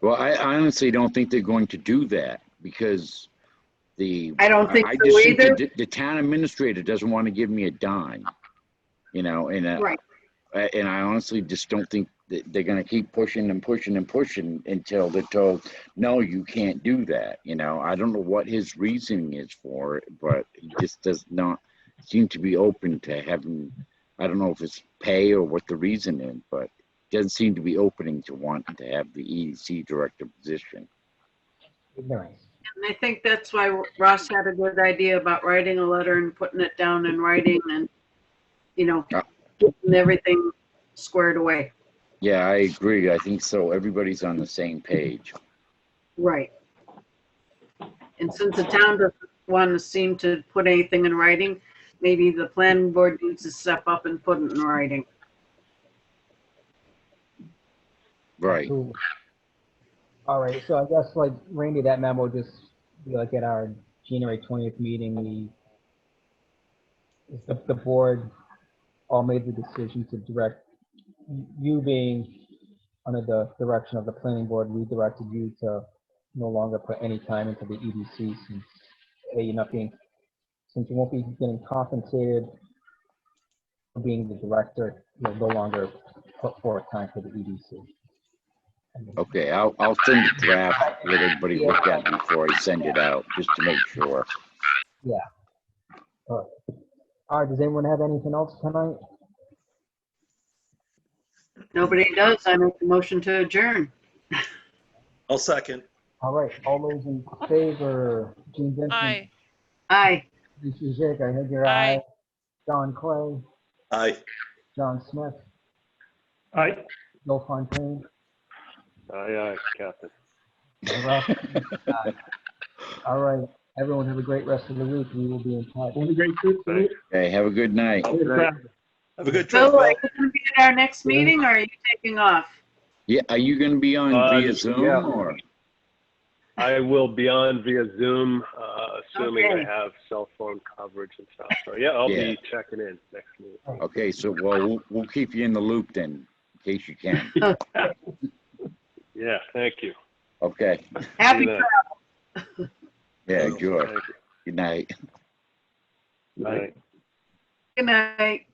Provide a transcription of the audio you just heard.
Well, I honestly don't think they're going to do that because the. I don't think so just either. the- The town administrator doesn't want to give me a dime, you know, and, uh, Right. I- and I honestly just don't think that they're gonna keep pushing and pushing and pushing until they're told, no, you can't do that, you know? I don't know what his reasoning is for it, but he just does not seem to be open to having, I don't know if it's pay or what the reason is, but doesn't seem to be opening to want to have the EDC director position. Ignorance. And I think that's why Ross had a good idea about writing a letter and putting it down in writing and, you know, Yeah. getting everything squared away. Yeah, I agree. I think so. Everybody's on the same page. Right. And since the town doesn't want to seem to put anything in writing, maybe the planning board needs to step up and put it in writing. Right. Ooh. All right, so I guess like Randy, that memo just be like at our January twentieth meeting, we if the, the board all made the decision to direct, you being under the direction of the planning board, we directed you to no longer put any time into the EDC since, A, you're not being, since you won't be getting compensated for being the director, you'll no longer put forth time for the E EDC. And then- Okay, I'll, I'll send a draft, let everybody look at it before I send it out, just to make sure. All right, does anyone have anything else tonight? Nobody does, I make the motion to adjourn. I'll second. All right, all those in favor, Gene Vincent. Aye. Aye. Lisa Zick, I heard your Aye. aye. John Clay, Aye. John Smith, Aye. Bill Fontaine. Aye, aye, Captain. and Ralph. All right, everyone have a great rest of the week. We will be in touch. Have a great trip. Okay, have a good night. Have a good trip, Bill, Bill. are you going to be at our next meeting or are you taking off? Yeah, are you gonna be on Uh, via Zoom yeah. or? I will be on via Zoom, uh, assuming I Okay. have cell phone coverage and stuff. So, yeah, I'll Yeah. be checking in next meeting. Okay, so, well, we'll, we'll keep you in the loop then, in case you can. Yeah, thank you. Okay, Happy See you yeah, then. sure. Thank Good night. you. Bye. Good night.